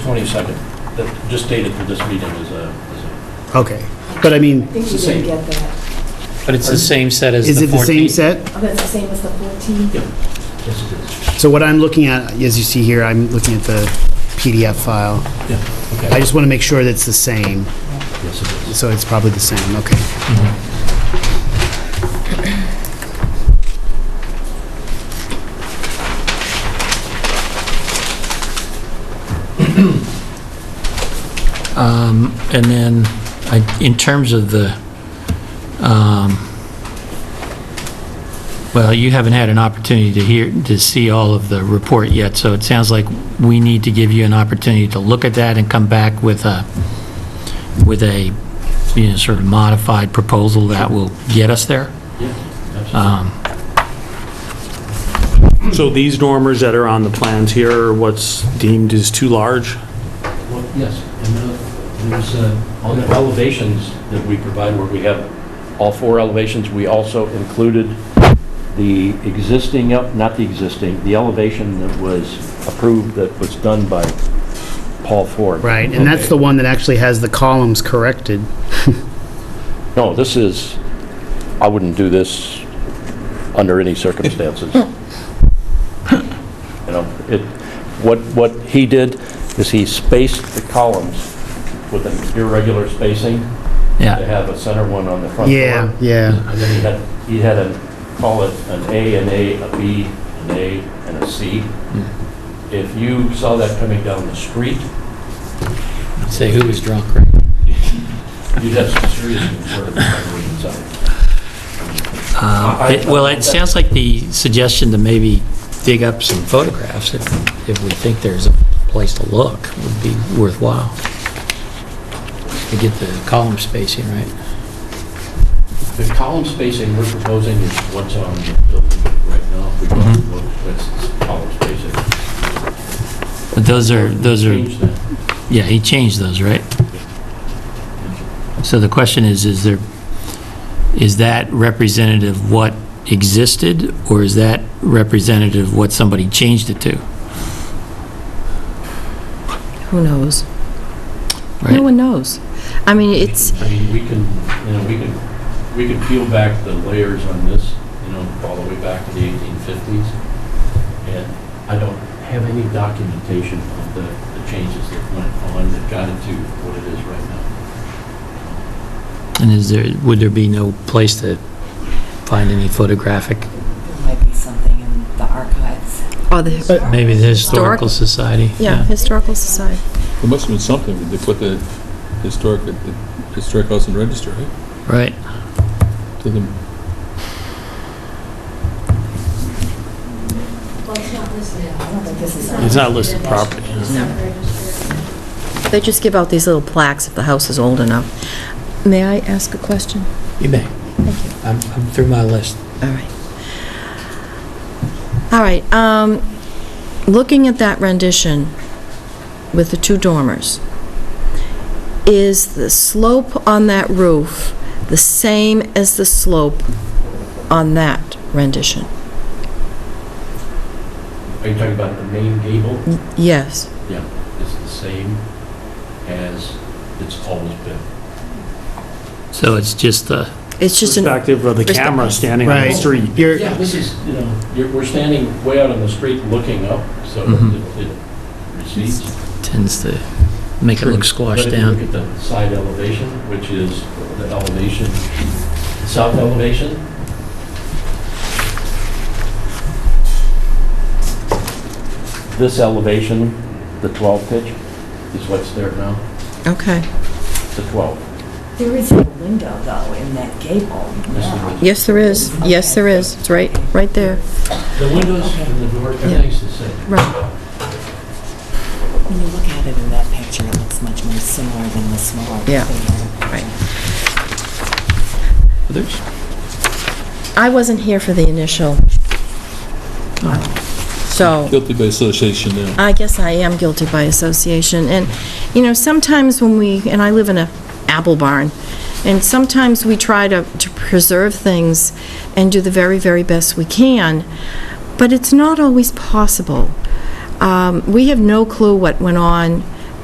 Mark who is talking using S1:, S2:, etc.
S1: 22nd, that just dated for this meeting is a, is a-
S2: Okay, but I mean,
S3: I think you
S1: It's the
S3: didn't get that.
S4: But it's the same set as the 14th.
S2: is it the same set?
S3: Oh, that's the same as the 14.
S1: yes, it is.
S2: So what I'm looking at, as you see here, I'm looking at the PDF file.
S1: Yeah,
S2: I
S1: okay,
S2: just want to make sure that it's the same,
S1: yes, it is.
S2: so it's probably the same, okay.
S4: Um, And then, I- in terms of the, um, well, you haven't had an opportunity to hear, to see all of the report yet, so it sounds like we need to give you an opportunity to look at that and come back with a, with a, you know, sort of modified proposal that will get us there.
S1: Yeah, absolutely.
S4: Um,
S5: So these dormers that are on the plans here are what's deemed as too large?
S1: Well, Yes, and uh, there's, uh, on the elevations that we provide, where we have all four elevations, we also included the existing, el- not the existing, the elevation that was approved, that was done by Paul Ford.
S2: Right, and that's the one that actually has the columns corrected.
S1: No, this is, I wouldn't do this under any circumstances. You know, it, what, what he did is he spaced the columns with an irregular spacing to
S4: Yeah,
S1: have a center one on the front door.
S2: Yeah, yeah,
S1: And then he had, he had a, call it an A, an A, a B, an A, and a C. If you saw that coming down the street,
S4: say who was drunk, right?
S1: you'd have some serious concern about the inside.
S4: Uh, it- Well, it sounds like the suggestion to maybe dig up some photographs, if if we think there's a place to look, would be worthwhile. To get the column spacing right.
S1: The column spacing we're proposing is what's on the building right now. We don't
S6: Mm-hmm.
S1: look, that's column spacing.
S4: But those are, those are,
S1: Change that.
S4: yeah, he changed those, right? So the question is, is there, is that representative of what existed, or is that representative of what somebody changed it to?
S7: Who knows?
S4: Right.
S7: No one knows. I mean, it's,
S1: I mean, we can, you know, we can, we can peel back the layers on this, you know, all the way back to the 1850s. And I don't have any documentation of the, the changes that went on that got it to what it is right now.
S4: And is there, would there be no place to find any photographic
S8: There might be something in the archives.
S7: oh, the,
S4: Maybe the Historical Society.
S7: yeah, Historical Society.
S6: There must have been something, they put the historic, the historic house and register, right?
S4: Right.
S6: To the,
S8: I don't think this is.
S5: It's not listed properly.
S7: They just give out these little plaques if the house is old enough. May I ask a question?
S4: You may. I'm, I'm through my list.
S7: All right. All right, um, looking at that rendition with the two dormers, is the slope on that roof the same as the slope on that rendition?
S1: Are you talking about the main gable?
S7: Yes.
S1: Yeah, it's the same as it's always been.
S4: So it's just uh, the,
S7: It's just an,
S5: Perspective of the
S7: Just a-
S5: camera standing on the
S2: right.
S5: street.
S2: You're,
S1: Yeah, this is, you know, you're- we're standing way out on the street looking up, so
S4: Mhm.
S1: it it recedes.
S4: tends to make it look squashed
S1: But if you
S4: down.
S1: look at the side elevation, which is the elevation, south elevation, this elevation, the 12 pitch, is what's there now,
S7: okay.
S1: the 12.
S8: There is a window, though, in that gable.
S1: This is
S8: Yeah.
S1: what's-
S7: Yes, there is. Yes, there is. It's right, right there.
S1: The windows and the door, everything's the same.
S7: Right.
S8: When you look at it in that picture, it looks much more similar than the smaller.
S7: Yeah,
S8: figure.
S7: right. I wasn't here for the initial. So
S6: guilty by association now.
S7: I guess I am guilty by association. And, you know, sometimes when we, and I live in a apple barn, and sometimes we try to, to preserve things and do the very, very best we can, but it's not always possible. Um, We have no clue what went on